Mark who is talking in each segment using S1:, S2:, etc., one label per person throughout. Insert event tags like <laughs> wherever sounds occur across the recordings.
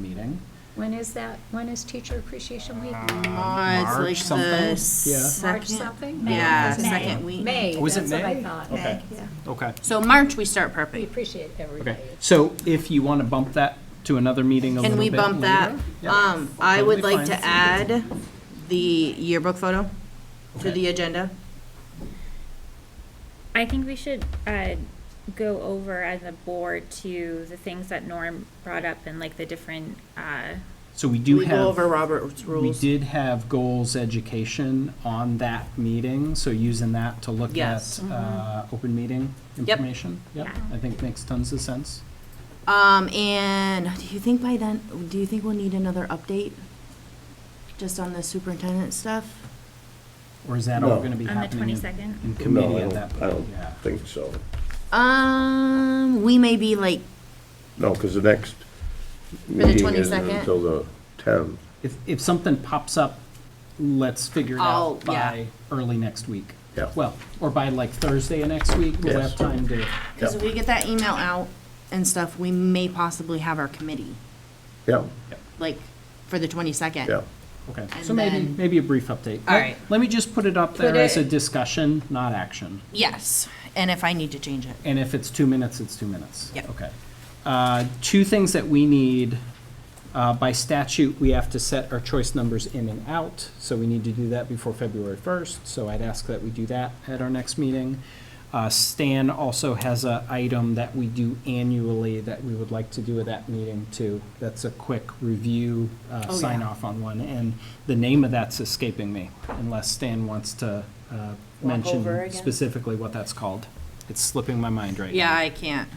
S1: meeting.
S2: When is that, when is Teacher Appreciation Week?
S3: Uh, it's
S1: March
S3: like
S1: something?
S3: the
S1: Yeah.
S2: March
S3: second.
S2: something?
S3: Yeah,
S2: May.
S3: second week.
S2: May,
S1: Was
S2: that's
S1: Oh, it
S2: what I
S1: May?
S2: thought.
S1: Okay.
S2: Yeah.
S1: Okay,
S3: So March, we start
S2: We
S3: perfect.
S2: appreciate everybody.
S1: okay. So if you want to bump that to another meeting a
S3: Can
S1: little
S3: we
S1: bit
S3: bump that?
S1: later? Yep.
S3: Um, I would
S1: Totally
S3: like to
S1: fine.
S3: add the yearbook photo to
S1: Okay.
S3: the agenda.
S4: I think we should uh, go over as a board to the things that Norm brought up and like the different. Uh,
S1: So we do
S3: We go
S1: have,
S3: over Robert's
S1: we
S3: rules.
S1: did have goals education on that meeting, so using that to look
S3: Yes. Mm-hmm.
S1: at uh, open meeting information. Yep, I think makes tons of sense.
S3: Um, and do you think by then, do you think we'll need another update? Just on the superintendent stuff?
S1: Or is that all
S5: No.
S1: going to be
S4: On the
S1: happening in-
S4: 22nd?
S1: in
S5: No,
S1: committee at
S5: I don't,
S1: that
S5: I
S1: point?
S5: don't
S1: Yeah.
S5: think so.
S3: Um, we may be like,
S5: No, because the next
S3: the
S5: meeting isn't
S3: 22nd?
S5: until the 10th.
S1: If, if something pops up, let's figure it
S3: Oh,
S1: out
S3: yeah.
S1: by early next week.
S5: Yeah.
S1: Well, or by like Thursday of next week, we'll
S5: Yes.
S1: have time to,
S3: because if we get that email out and stuff, we may possibly have our committee,
S5: Yeah,
S3: like, for the twenty-second.
S5: yeah.
S1: okay.
S3: And
S1: So maybe,
S3: then-
S1: maybe a brief update.
S3: All right.
S1: Let me just put it up
S2: Put
S1: there as a
S2: it-
S1: discussion, not action.
S3: Yes, and if I need to change it.
S1: And if it's two minutes, it's two minutes.
S3: Yep.
S1: Okay. Uh, Two things that we need, uh, by statute, we have to set our choice numbers in and out, so we need to do that before February 1st, so I'd ask that we do that at our next meeting. Uh, Stan also has a item that we do annually that we would like to do at that meeting too. That's a quick review, uh,
S3: Oh, yeah.
S1: sign off on one, and the name of that's escaping me, unless Stan wants to uh,
S3: over
S1: mention
S3: again?
S1: specifically what that's called. It's slipping my mind right
S3: Yeah,
S1: now.
S3: I can't.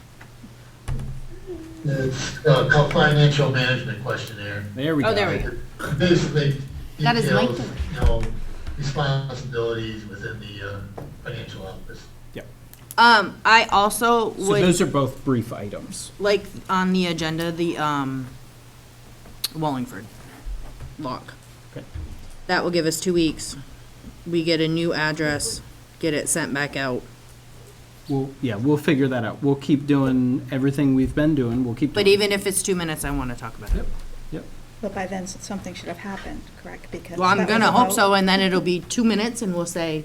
S6: uh, called financial management questionnaire.
S1: There we go.
S3: Oh, there we go.
S6: Basically
S3: That is
S6: details,
S3: lengthy.
S6: you know, responsibilities within the uh, financial office.
S1: Yep.
S3: Um, I also
S1: So those
S3: would,
S1: are both brief items.
S3: like, on the agenda, the, um, Wallingford lock.
S1: Okay.
S3: That will give us two weeks. We get a new address, get it sent back out.
S1: We'll, yeah, we'll figure that out. We'll keep doing everything we've been doing. We'll keep doing.
S3: But even if it's two minutes, I want to talk about it.
S1: Yep. Yep.
S7: But by then, something should have happened, correct? Because
S3: Well, I'm
S7: that was
S3: gonna
S7: a
S3: hope
S7: vote.
S3: so, and then it'll be two minutes, and we'll say,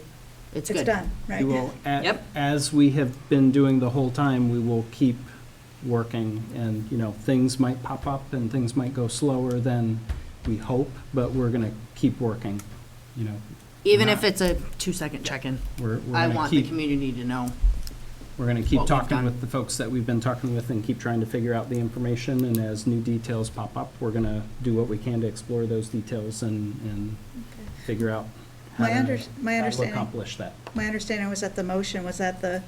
S3: it's good.
S7: It's done, right?
S1: We will, a-
S3: Yep.
S1: as we have been doing the whole time, we will keep working. And, you know, things might pop up and things might go slower than we hope, but we're going to keep working, you know.
S3: Even if
S1: Not-
S3: it's a two-second check-in.
S1: We're, we're
S3: I
S1: gonna
S3: want the
S1: keep-
S3: community to know.
S1: We're going to
S3: what
S1: keep
S3: we've
S1: talking
S3: done.
S1: with the folks that we've been talking with and keep trying to figure out the information. And as new details pop up, we're going to do what we can to explore those details and, and figure out how
S7: My
S1: to-
S7: under- my
S1: how to
S7: understanding-
S1: accomplish that.
S7: My understanding was that the motion was that the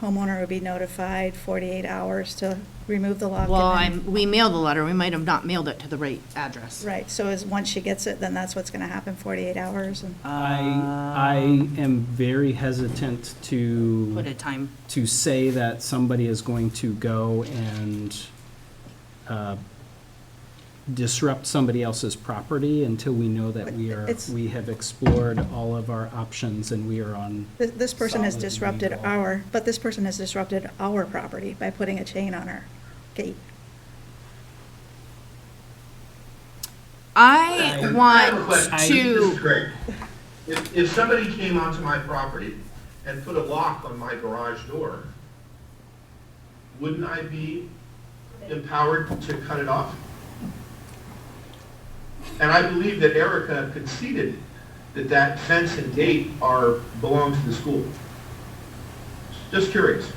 S7: homeowner would be notified 48 hours to remove the lock.
S3: Well,
S7: and then-
S3: I'm, we mailed the letter, we might have not mailed it to the right address.
S7: Right, so is, once she gets it, then that's what's going to happen, 48 hours? and-
S3: Uh,
S1: I, I am very hesitant
S3: Put
S1: to,
S3: a time,
S1: to say that somebody is going to go and uh, disrupt somebody else's property until we know that we are,
S7: It's-
S1: we have explored all of our options and we are on
S7: This, this person has
S1: Solid
S7: disrupted
S1: legal.
S7: our, but this person has disrupted our property by putting a chain on our gate.
S3: I
S6: I have a
S3: want
S6: question. This is
S3: to,
S6: great. If, if somebody came onto my property and put a lock on my garage door, wouldn't I be empowered to cut it off? And I believe that Erica conceded that that fence and gate are, belong to the school. Just curious.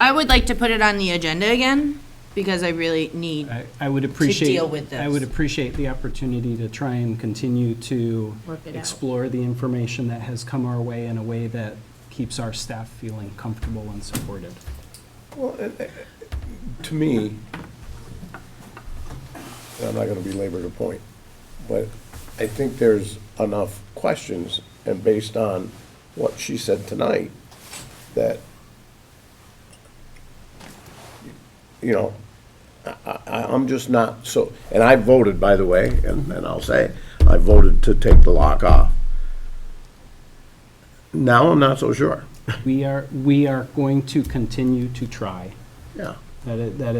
S3: I would like to put it on the agenda again, because I really need,
S1: I- I would appreciate.
S3: deal with
S1: I would
S3: this.
S1: appreciate the opportunity to try and continue to
S3: Work it out.
S1: explore the information that has come our way in a way that keeps our staff feeling comfortable and
S3: <laughs>
S1: supported.
S5: To me, I'm not going to belabor the point, but I think there's enough questions, and based on what she said tonight, that, you know, I, I, I'm just not so, and I voted, by the way, and, and I'll say, I voted to take the lock off. Now I'm not so sure,
S1: We are, we are going to continue to try.
S5: yeah.
S1: That is, that is